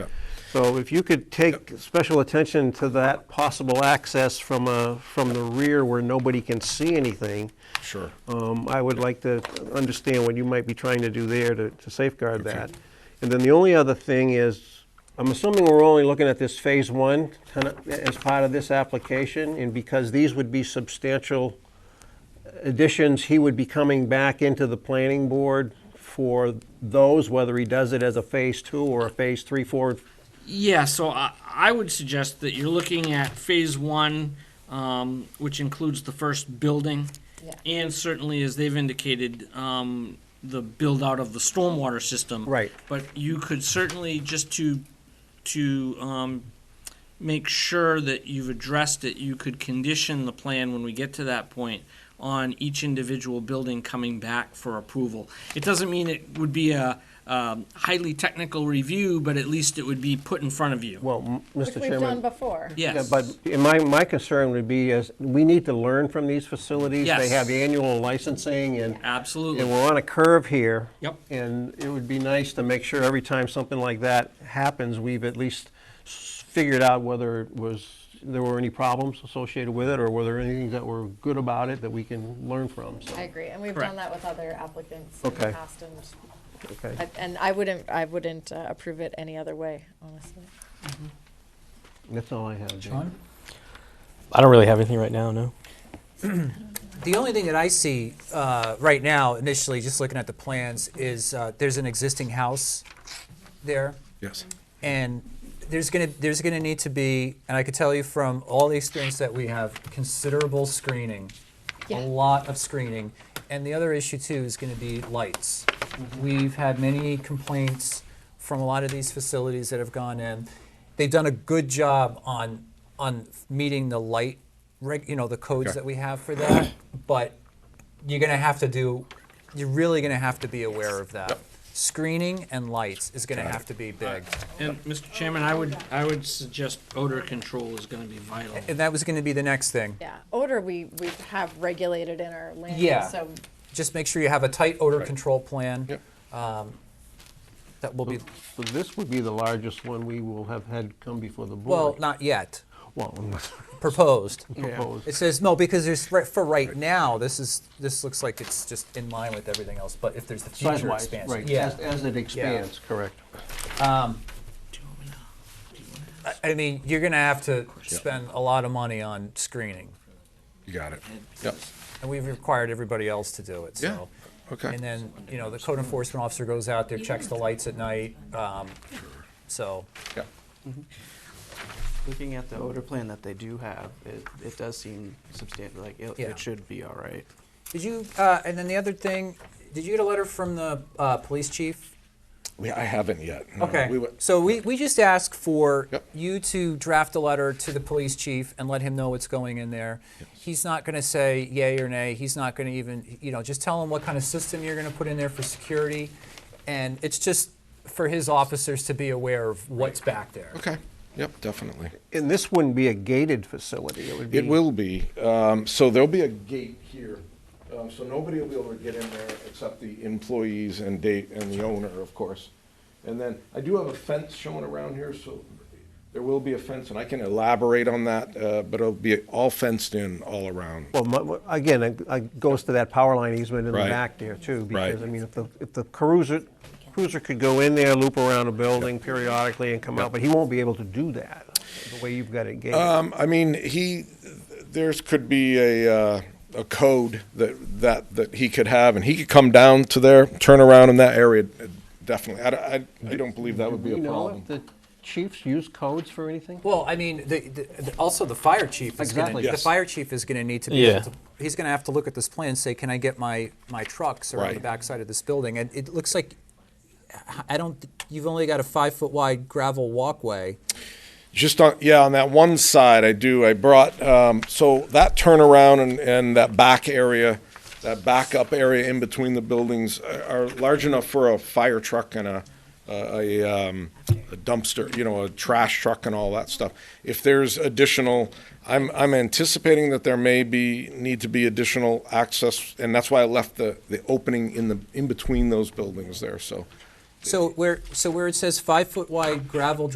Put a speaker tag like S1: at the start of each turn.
S1: So if you could take special attention to that possible access from, uh, from the rear where nobody can see anything,
S2: Sure.
S1: um, I would like to understand what you might be trying to do there to to safeguard that. And then the only other thing is, I'm assuming we're only looking at this Phase 1 kind of as part of this application, and because these would be substantial additions, he would be coming back into the planning board for those, whether he does it as a Phase 2 or a Phase 3, 4,
S3: Yeah, so I, I would suggest that you're looking at phase one, um, which includes the first building.
S4: Yeah.
S3: And certainly, as they've indicated, um, the build out of the stormwater system.
S1: Right.
S3: But you could certainly, just to, to, um, make sure that you've addressed it, you could condition the plan when we get to that point on each individual building coming back for approval. It doesn't mean it would be a um, highly technical review, but at least it would be put in front of you.
S1: well, m-
S4: Which
S1: Mr.
S4: we've done
S1: Chairman.
S4: before.
S1: yeah,
S3: Yes.
S1: But in my, my concern would be is, we need to learn from these facilities. They
S3: Yes.
S1: have annual licensing and
S3: Absolutely.
S1: And we're on a curve here.
S3: Yep.
S1: And it would be nice to make sure every time something like that happens, we've at least s- figured out whether it was, there were any problems associated with it, or were there anything that were good about it that we can learn from, so,
S4: I agree, and we've
S3: Correct.
S4: done that with other applicants in
S1: Okay.
S4: the past, and,
S1: okay.
S4: and I wouldn't, I wouldn't uh, approve it any other way, honestly.
S1: That's all I have, Jane.
S5: John?
S6: I don't really have anything right now, no.
S5: The only thing that I see uh, right now, initially, just looking at the plans, is uh, there's an existing house there,
S2: Yes.
S5: and there's gonna there's gonna need to be, and I could tell you from all the experience that we have, considerable screening,
S4: Yeah.
S5: a lot of screening, and the other issue too is gonna be lights. We've had many complaints from a lot of these facilities that have gone in. They've done a good job on on meeting the light, reg, you know, the codes
S2: Okay.
S5: that we have for that, but you're going to have to do you're really going to have to be aware of that screening and lights is going to have to be big
S3: And Mr. Chairman, I would, I would suggest odor control is gonna be vital.
S5: and that was going to be the next thing
S4: Yeah, odor, we, we have regulated in our land,
S5: Yeah.
S4: use, so
S5: just make sure you have a tight odor
S2: Right.
S5: control plan
S2: Yep.
S5: um, that will be
S1: So this would be the largest one we will have had come before the
S5: well
S1: board.
S5: not yet
S1: Well,
S5: proposed
S1: proposed.
S5: it says no because there's right, for right now this is this looks like it's just in line with everything else but if there's the future
S1: Size-wise,
S5: expansion
S1: right,
S5: yeah
S1: as, as it expands, correct.
S5: i mean you're going to have to spend a lot of money on screening
S2: You got it. Yep.
S5: And we've required everybody else to do it,
S2: Yeah,
S5: so.
S2: okay.
S5: And then, you know, the code enforcement officer goes out there, checks the lights at night, um, so.
S2: Yep.
S7: Looking at the odor plan that they do have, it, it does seem substantial, like, it,
S5: Yeah.
S7: it should be all right.
S5: Did you, uh, and then the other thing, did you get a letter from the, uh, police chief?
S2: We, I haven't yet. No, we
S5: Okay,
S2: wa-
S5: so we, we just asked for
S2: Yep.
S5: you to draft a letter to the police chief and let him know what's going in there. He's not gonna say yay or nay, he's not gonna even, you know, just tell him what kind of system you're gonna put in there for security. And it's just for his officers to be aware of what's back there.
S2: Okay. Yep, definitely.
S1: And this wouldn't be a gated facility, it would be.
S2: It will be. Um, so there'll be a gate here. Um, so nobody will be able to get in there except the employees and date and the owner, of course. And then I do have a fence showing around here, so there will be a fence, and I can elaborate on that. Uh, but it'll be all fenced in all around.
S1: Well, my- my- again, it- it goes to that power line easement in the
S2: Right.
S1: back there too. Because,
S2: Right.
S1: I mean, if the, if the cruiser, cruiser could go in there, loop around a building periodically and come out, but he won't be able to do that, the way you've got it gated.
S2: Um, I mean, he, there's could be a, uh, a code that, that, that he could have, and he could come down to there, turn around in that area, definitely. I, I, I don't believe that would be
S1: Do
S2: a
S1: you know if
S2: problem.
S1: the chiefs use codes for anything?
S5: Well, I mean, the, the, the- also the fire chief is
S1: Exactly.
S5: gonna,
S2: Yes.
S5: the fire chief is gonna need to be
S6: Yeah.
S5: able to, he's gonna have to look at this plan and say, can I get my, my trucks around the
S2: Right.
S5: backside of this building? And it looks like, I don't, you've only got a five-foot wide gravel walkway.
S2: Just on, yeah, on that one side, I do, I brought, um, so that turnaround and, and that back area, that backup area in between the buildings are are large enough for a fire truck and a, a, a, um, a dumpster, you know, a trash truck and all that stuff. If there's additional, I'm, I'm anticipating that there may be, need to be additional access, and that's why I left the, the opening in the, in between those buildings there, so.
S5: So where, so where it says five-foot wide gravel